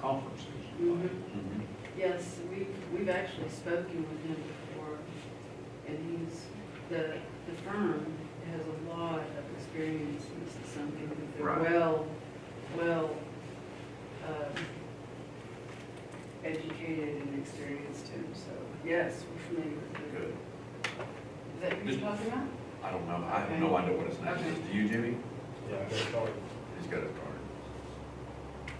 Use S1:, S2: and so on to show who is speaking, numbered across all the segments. S1: conferences. Mm-hmm.
S2: Mhm. Yes, we've, we've actually spoken with him before, and he's, the, the firm has a lot of experience, and this is something that they're
S3: Right.
S2: well, well, um, educated and experienced in, so, yes, we're familiar with it.
S3: Good.
S2: Is that who you're talking about?
S3: I don't know, I have no idea what his name is. Do you, Jimmy?
S1: Yeah, I got started.
S3: He's got his card.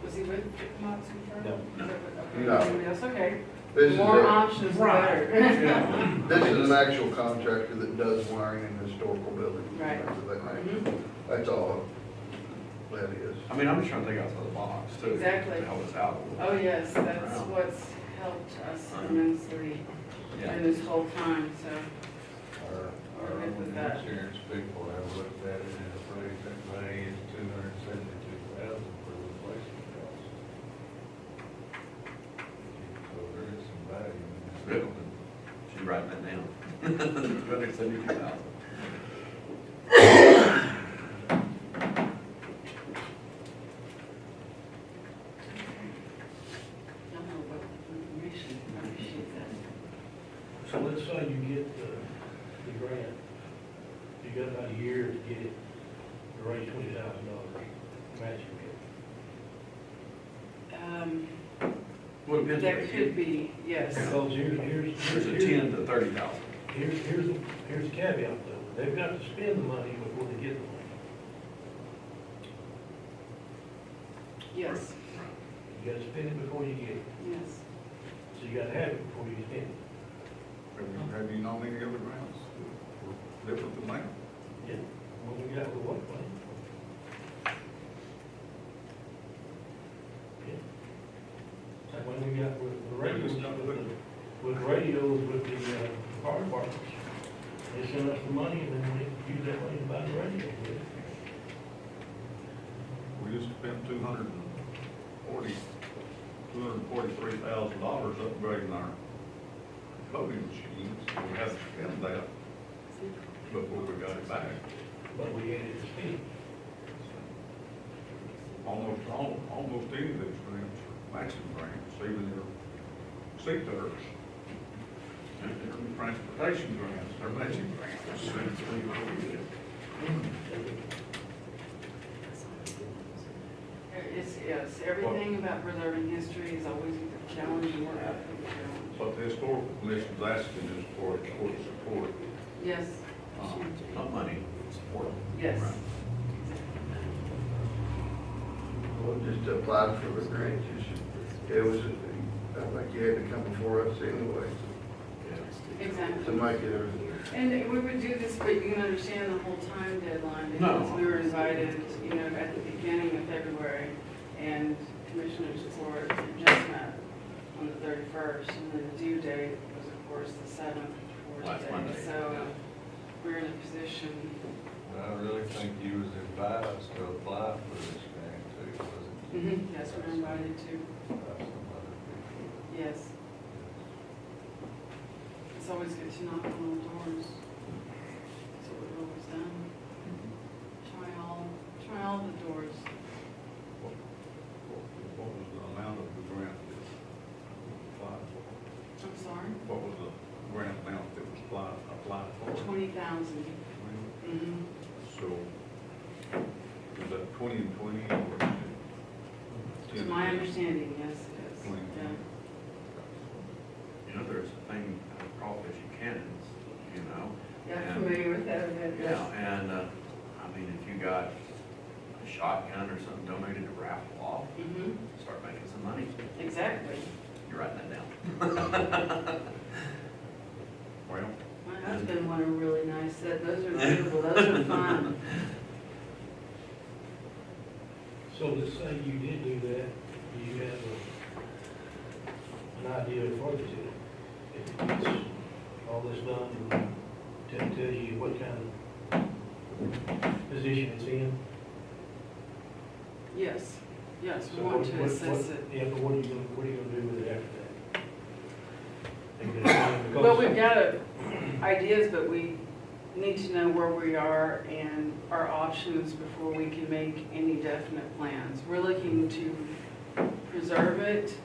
S2: Was he with the Moxie firm?
S1: No.
S2: Is that what- okay,
S4: No.
S2: somebody else, okay.
S4: This is,
S2: More
S4: a-
S2: options, the better.
S1: Yeah.
S4: this is an actual contractor that does wiring in historical buildings.
S2: Right.
S4: and things of that nature.
S2: Mhm.
S4: That's all that is.
S3: I mean, I'm just trying to think outside the box too.
S2: Exactly.
S3: To help us out a little.
S2: Oh, yes, that's
S3: Wow.
S2: what's helped us
S3: Right.
S2: immensely in
S3: Yeah.
S2: this whole time, so,
S5: Our, our
S2: We're good with
S5: own
S2: that.
S5: insurance people have looked at it and appraised that money is two hundred and seventy-two thousand for replacement costs. So there is some value in this
S3: Really?
S5: building.
S3: She's writing that down. Two hundred seventy-two thousand.
S2: I don't know what information, I appreciate that.
S1: So let's say you get the, the grant, you got about a year to get it, to raise twenty thousand dollars, matching it.
S2: Um,
S3: Well, it
S2: That
S3: depends.
S2: could be, yes,
S1: Because here's, here's.
S3: There's a ten to thirty thousand.
S1: Here's, here's, the- here's the caveat though, they've got to spend the money before they get the money.
S2: yes,
S1: You gotta spend it before you get it,
S2: yes.
S1: so you gotta have it before you spend it.
S4: Have you- Have you known any other grants that were different than that?
S1: Yeah. Well, we got the one plan. Yeah. Like when we got with the radios, with the, with radios with the, uh, fire departments. They sent us the money and then we used that money to buy the radio with.
S6: We just spent two hundred and forty, two hundred and forty-three thousand dollars upgrading our voting machines. We had to spend that before we got it back.
S1: But we added the speed.
S6: Almost, al- almost any of those grants, are matching grants, even their CTERs. Their transportation grants, their matching grants.
S2: It's, yes, everything about preserving history is always a challenge, and we're up for the challenge.
S6: But the historical commission's asking us for, for support.
S2: Yes,
S3: Uh, Not money, support.
S2: yes.
S3: Right.
S4: Well, just applied for the grant, you should, it was, I think you had to come before us anyway
S2: Exactly.
S4: to make it.
S2: And we would do this, but you can understand the whole time deadline, because
S3: No.
S2: we were invited, you know, at the beginning of February, and commissioners court just met on the thirty-first, and then the due date was, of course, the seventh, or
S3: Last
S2: today,
S3: Monday,
S2: so
S3: yeah.
S2: we're in a position,
S5: But I really think you was advised to apply for this grant too, wasn't you?
S2: yes, we're invited to,
S5: By some other people.
S2: yes, it's always good to knock on all doors. That's what we've always done, try all, try all the doors.
S6: What was the amount of the grant that was applied for?
S2: I'm sorry,
S6: What was the grant amount that was applied, applied for?
S2: twenty thousand. Mm-hmm.
S6: So, is that twenty and twenty or?
S2: To my understanding, yes, it is. Yeah.
S3: You know, there's a thing called fishing cannons, you know?
S2: Yeah,
S3: And-
S2: I'm familiar with that event,
S3: Yeah,
S2: yes.
S3: and, uh, I mean, if you got a shotgun or something donated to raffle off,
S2: hmm
S3: start making some money.
S2: exactly.
S3: You're writing that down. Well,
S2: My husband won a really nice set, those are beautiful, those are fun.
S1: So let's say you did do that, you have a, an idea of what to do. If it's all this done, to tell you what kind of position it's in.
S2: Yes, yes, we
S1: So
S2: want
S1: what-
S2: to
S1: what-
S2: assess
S1: what-
S2: it.
S1: Yeah, but what are you gonna, what are you gonna do with it after that? Are you gonna- because-
S2: Well, we've got uh, ideas, but we need to know where we are and our options before we can make any definite plans. We're looking to preserve it,